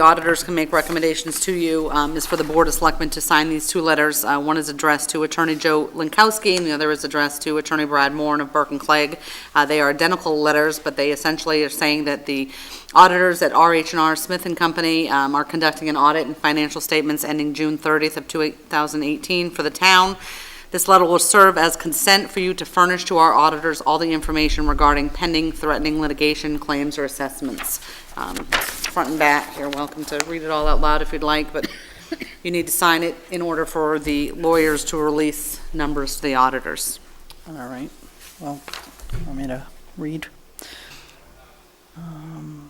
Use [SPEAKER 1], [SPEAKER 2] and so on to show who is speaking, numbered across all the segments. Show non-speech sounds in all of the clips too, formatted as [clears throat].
[SPEAKER 1] The auditors can make recommendations to you, um, is for the Board of Selectmen to sign these two letters. Uh, One is addressed to Attorney Joe Lankowski, and the other is addressed to Attorney Brad Moore of Burke and Clegg. Uh, They are identical letters, but they essentially are saying that the auditors at RH and R Smith and Company um, are conducting an audit and financial statements ending June 30th of 2018 for the town. This letter will serve as consent for you to furnish to our auditors all the information regarding pending threatening litigation, claims, or assessments. Um, Front and back, you're welcome to read it all out loud if you'd like, but you need to sign it in order for the lawyers to release numbers to the auditors.
[SPEAKER 2] All right, well, want me to read? Um,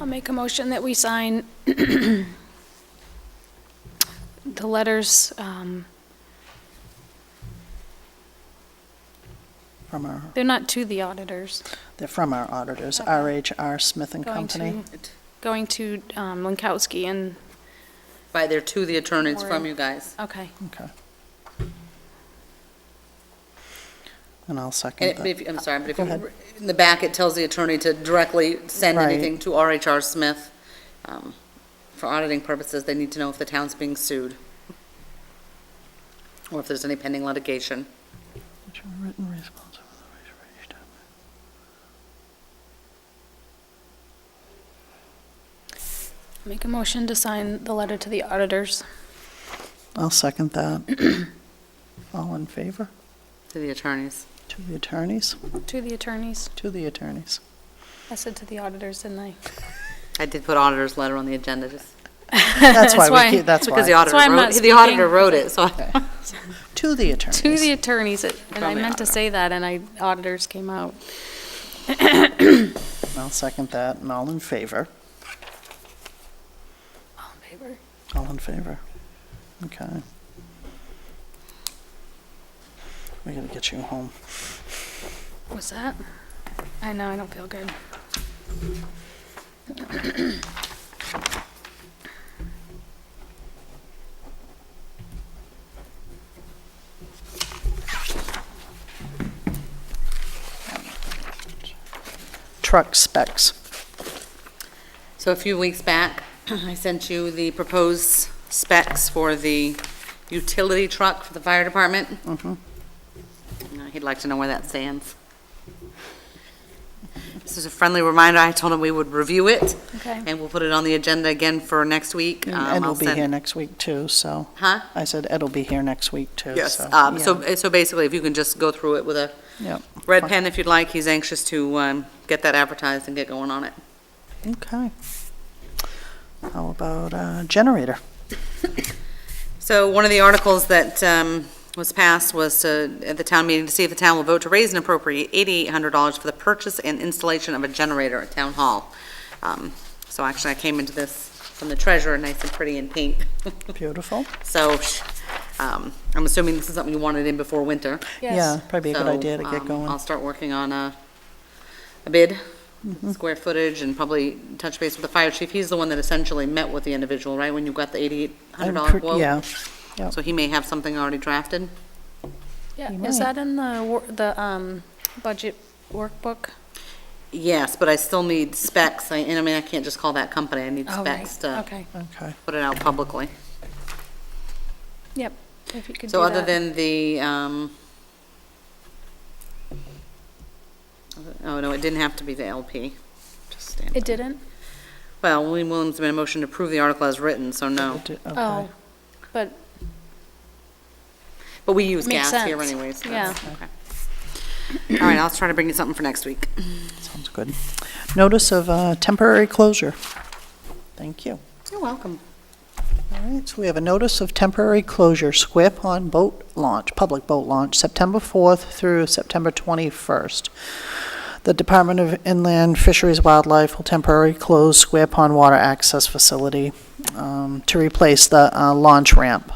[SPEAKER 3] I'll make a motion that we sign the letters, um,
[SPEAKER 2] From our,
[SPEAKER 3] they're not to the auditors,
[SPEAKER 2] they're from our auditors, RHR Smith and
[SPEAKER 3] going to,
[SPEAKER 2] Company.
[SPEAKER 3] going to um, Lankowski and,
[SPEAKER 1] By their to the attorneys from you guys.
[SPEAKER 3] okay.
[SPEAKER 2] Okay. And I'll
[SPEAKER 1] And
[SPEAKER 2] second
[SPEAKER 1] it- but
[SPEAKER 2] that.
[SPEAKER 1] if, I'm sorry, but if,
[SPEAKER 2] Go
[SPEAKER 1] you-
[SPEAKER 2] ahead.
[SPEAKER 1] in the back, it tells the attorney to directly send
[SPEAKER 2] Right.
[SPEAKER 1] anything to RHR Smith. Um, For auditing purposes, they need to know if the town's being sued, or if there's any pending litigation.
[SPEAKER 2] Written response of the reservation.
[SPEAKER 3] Make a motion to sign the letter to the auditors.
[SPEAKER 2] I'll second that. All in favor?
[SPEAKER 1] To the attorneys.
[SPEAKER 2] To the attorneys,
[SPEAKER 3] To the attorneys.
[SPEAKER 2] to the attorneys.
[SPEAKER 3] I said to the auditors, didn't I?
[SPEAKER 1] I did put auditor's letter on the agenda, just
[SPEAKER 2] That's
[SPEAKER 3] That's
[SPEAKER 2] why
[SPEAKER 3] why-
[SPEAKER 2] we keep, that's
[SPEAKER 1] because the
[SPEAKER 2] why.
[SPEAKER 1] auditor
[SPEAKER 3] why I'm
[SPEAKER 1] wrote,
[SPEAKER 3] not
[SPEAKER 1] the auditor
[SPEAKER 3] speaking.
[SPEAKER 1] wrote it, [laughs] so. I-
[SPEAKER 2] To the
[SPEAKER 3] To the
[SPEAKER 2] attorneys.
[SPEAKER 3] attorneys, it- and I
[SPEAKER 1] From the
[SPEAKER 3] meant to
[SPEAKER 1] auditor.
[SPEAKER 3] say that, and I, auditors came out.
[SPEAKER 2] I'll second that, and all in favor?
[SPEAKER 3] All in favor?
[SPEAKER 2] All in favor? Okay. We gotta get you home.
[SPEAKER 3] What's that? I know, I don't feel good.
[SPEAKER 2] Truck specs.
[SPEAKER 1] So a few weeks back, [clears throat] I sent you the proposed specs for the utility truck for the fire department.
[SPEAKER 2] Mm-hmm.
[SPEAKER 1] Uh, He'd like to know where that stands. This is a friendly reminder, I told him we would review it.
[SPEAKER 3] Okay.
[SPEAKER 1] And we'll put it on the agenda again for next week.
[SPEAKER 2] And
[SPEAKER 1] Um,
[SPEAKER 2] Ed will
[SPEAKER 1] I'll
[SPEAKER 2] be
[SPEAKER 1] send-
[SPEAKER 2] here next week too, so.
[SPEAKER 1] Huh?
[SPEAKER 2] I said Ed will be here next week too, so.
[SPEAKER 1] Yes, um,
[SPEAKER 2] yeah,
[SPEAKER 1] so, so basically, if you can just go through it with a
[SPEAKER 2] Yep,
[SPEAKER 1] red pen if you'd like, he's anxious to, um, get that advertised and get going on it.
[SPEAKER 2] okay. How about uh, generator?
[SPEAKER 1] So one of the articles that um, was passed was to, at the town meeting, to see if the town will vote to raise and appropriate $8,800 for the purchase and installation of a generator at Town Hall. Um, So actually, I came into this from the treasurer, nice and pretty in pink. [laughs]
[SPEAKER 2] Beautiful.
[SPEAKER 1] So um, I'm assuming this is something you wanted in before winter.
[SPEAKER 2] Yeah, probably a good
[SPEAKER 1] So,
[SPEAKER 2] idea to get
[SPEAKER 1] um, I'll
[SPEAKER 2] going.
[SPEAKER 1] start working on a, a bid,
[SPEAKER 2] Mm-hmm.
[SPEAKER 1] square footage, and probably touch base with the fire chief. He's the one that essentially met with the individual, right, when you got the
[SPEAKER 2] I'm
[SPEAKER 1] $8,800
[SPEAKER 2] pre-
[SPEAKER 1] quote?
[SPEAKER 2] Yeah,
[SPEAKER 1] So he may have something already drafted?
[SPEAKER 3] Yeah,
[SPEAKER 2] You
[SPEAKER 3] is
[SPEAKER 2] might.
[SPEAKER 3] that in the, wor- the, um, budget workbook?
[SPEAKER 1] Yes, but I still need specs, I- and I mean, I can't just call that company, I need
[SPEAKER 3] Oh, right.
[SPEAKER 1] specs to
[SPEAKER 3] Okay,
[SPEAKER 2] okay.
[SPEAKER 1] put it out publicly.
[SPEAKER 3] yep, if you could do
[SPEAKER 1] So other
[SPEAKER 3] that.
[SPEAKER 1] than the, um, oh, no, it didn't have to be the LP. Just stand-
[SPEAKER 3] It didn't?
[SPEAKER 1] Well, William Williams made a motion to approve the article as written, so no.
[SPEAKER 2] It did- okay.
[SPEAKER 3] Oh, but,
[SPEAKER 1] But we use
[SPEAKER 3] Makes
[SPEAKER 1] gas here
[SPEAKER 3] sense.
[SPEAKER 1] anyways. so that's- okay. All right, I'll try to bring you something for next week.
[SPEAKER 2] Sounds good. Notice of uh, temporary closure. Thank you.
[SPEAKER 1] You're welcome.
[SPEAKER 2] All right, so we have a notice of temporary closure, Square Pond Boat Launch, Public Boat Launch, September 4th through September 21st. The Department of Inland Fisheries Wildlife will temporarily close Square Pond Water Access Facility um, to replace the uh, launch ramp.